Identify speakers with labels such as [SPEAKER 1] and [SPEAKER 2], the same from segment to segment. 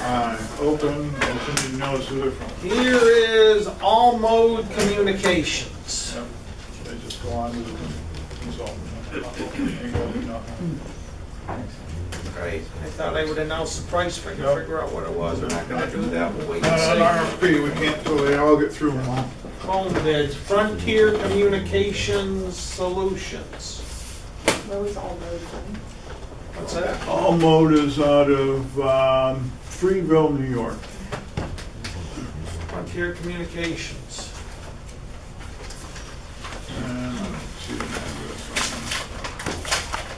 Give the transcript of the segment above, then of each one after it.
[SPEAKER 1] Uh, open, open, you knows who they're from.
[SPEAKER 2] Here is all mode communications.
[SPEAKER 1] Yep. They just go on to the consultant. Ain't gonna be nothing.
[SPEAKER 2] Great. I thought I would announce the price for you,
[SPEAKER 1] Nope.
[SPEAKER 2] figure out what it was. We're not gonna do that. We'll wait
[SPEAKER 1] Not Uh, an
[SPEAKER 2] and see.
[SPEAKER 1] RFP, we can't do it, I'll get through them all.
[SPEAKER 2] Phone bids, Frontier Communications Solutions.
[SPEAKER 3] Where was all those from?
[SPEAKER 2] What's that?
[SPEAKER 1] All motors out of um, Freeville, New York.
[SPEAKER 2] Frontier Communications.
[SPEAKER 1] And let's see the address on them.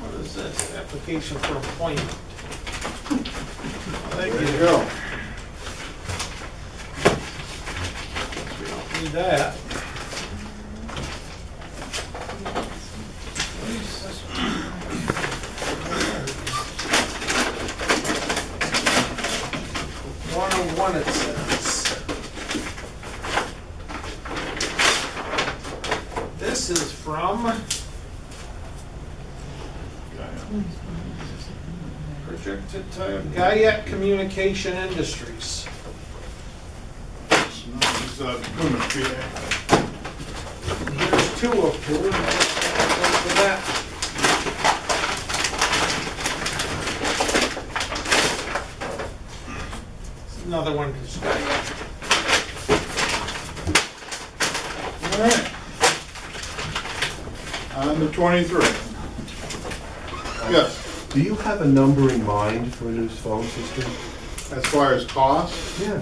[SPEAKER 2] What is this? Application for appointment.
[SPEAKER 1] There you go.
[SPEAKER 2] We don't need that. One oh one it says. This is from projected time, Guyette Communication Industries.
[SPEAKER 1] It's uh, Plymouth, PA.
[SPEAKER 2] There's two of two. and that's for that. It's Another one to study.
[SPEAKER 1] All right. On the 23. Yes,
[SPEAKER 4] Do you have a number in mind for this phone system?
[SPEAKER 1] as far as cost,
[SPEAKER 4] Yeah.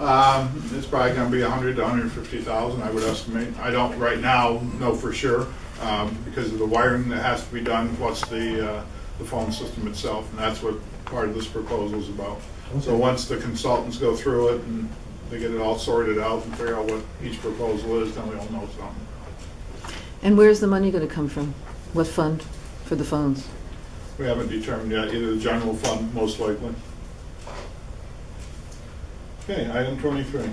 [SPEAKER 1] um, it's probably gonna be 100 to 150,000, I would estimate. I don't right now know for sure, um, because of the wiring that has to be done, plus the, uh, the phone system itself, and that's what part of this proposal is about. So
[SPEAKER 4] Okay.
[SPEAKER 1] once the consultants go through it and they get it all sorted out and figure out what each proposal is, then we all know something.
[SPEAKER 5] And where's the money going to come from? What fund for the phones?
[SPEAKER 1] We haven't determined yet, either the general fund, most likely. Okay, item twenty-three.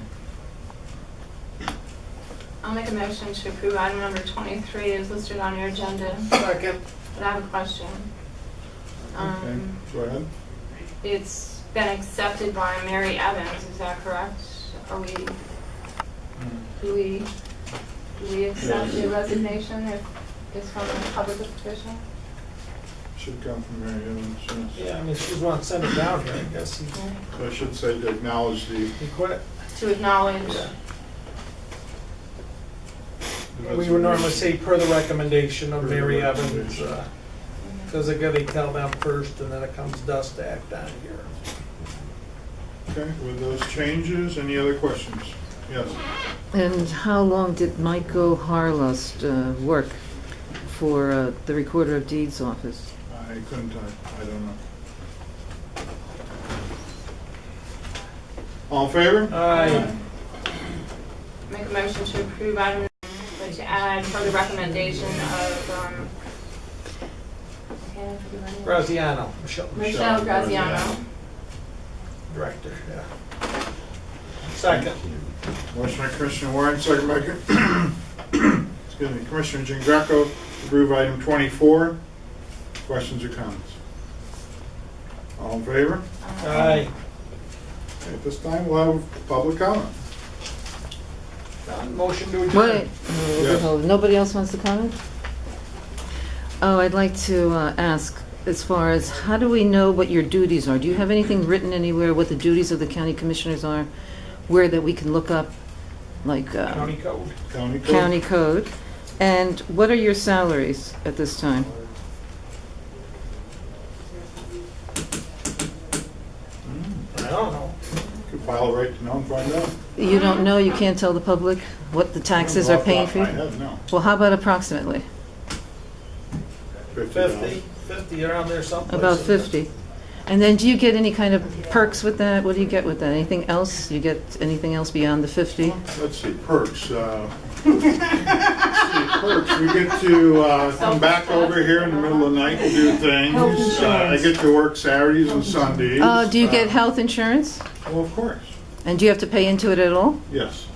[SPEAKER 3] I'll make a motion to approve item number 23 is listed on your agenda,
[SPEAKER 2] Second.
[SPEAKER 3] but I have a question.
[SPEAKER 1] Okay,
[SPEAKER 3] Um,
[SPEAKER 1] go ahead.
[SPEAKER 3] It's been accepted by Mary Evans, is that correct? Are we, do we, do we accept the resignation if it's from a public official?
[SPEAKER 1] Should come from Mary Evans, yes.
[SPEAKER 2] Yeah, I mean, she's one sent it down here, I guess. He-
[SPEAKER 1] So I should say to acknowledge the.
[SPEAKER 2] He quit.
[SPEAKER 3] To acknowledge,
[SPEAKER 2] Yeah. We would normally say per the recommendation of Mary Evans, uh, because they gotta tell them first, and then it comes to us to act on here.
[SPEAKER 1] Okay, with those changes, any other questions? Yes.
[SPEAKER 5] And how long did Michael Harlust uh, work for uh, the Recorder of Deeds office?
[SPEAKER 1] I couldn't, I, I don't know. All in
[SPEAKER 2] Uh.
[SPEAKER 1] favor?
[SPEAKER 2] Aye.
[SPEAKER 3] make a motion to approve item, but to add for the recommendation of, um, okay, I forget her name.
[SPEAKER 2] Graziano, Michelle,
[SPEAKER 3] Michelle
[SPEAKER 1] Michelle
[SPEAKER 3] Graziano.
[SPEAKER 1] Graziano.
[SPEAKER 2] director, yeah. Second.
[SPEAKER 1] Motion by Commissioner Warren, second by, excuse me, Commissioner Jean Greco, to approve item 24. Questions or comments? All in favor?
[SPEAKER 2] Aye.
[SPEAKER 1] At this time, we'll have public comment.
[SPEAKER 2] Done. Motion to
[SPEAKER 5] Wait,
[SPEAKER 2] adjourn.
[SPEAKER 5] uh,
[SPEAKER 1] Yes.
[SPEAKER 5] hold- nobody else wants to comment? Oh, I'd like to uh, ask, as far as, how do we know what your duties are? Do you have anything written anywhere what the duties of the county commissioners are? Where that we can look up, like uh,
[SPEAKER 2] County code.
[SPEAKER 1] County clerk?
[SPEAKER 5] county code? And what are your salaries at this time?
[SPEAKER 2] I don't know.
[SPEAKER 1] Could file right to know and find out.
[SPEAKER 5] You don't know, you can't tell the public what the taxes are paying for?
[SPEAKER 1] I
[SPEAKER 5] you?
[SPEAKER 1] have no.
[SPEAKER 5] Well, how about approximately?
[SPEAKER 2] Fifty, fifty around there someplace.
[SPEAKER 5] About 50. And then do you get any kind of perks with that? What do you get with that? Anything else? You get anything else beyond the 50?
[SPEAKER 1] Let's see, perks. uh, let's see, Perks, we get to uh, come back over here in the middle of the night, and do things.
[SPEAKER 5] Health
[SPEAKER 1] Uh, I
[SPEAKER 5] insurance.
[SPEAKER 1] get to work Saturdays and Sundays.
[SPEAKER 5] Uh, Do you
[SPEAKER 1] Uh,
[SPEAKER 5] get health insurance?
[SPEAKER 1] Well, of course,
[SPEAKER 5] And do you have to pay into it at all?
[SPEAKER 1] yes.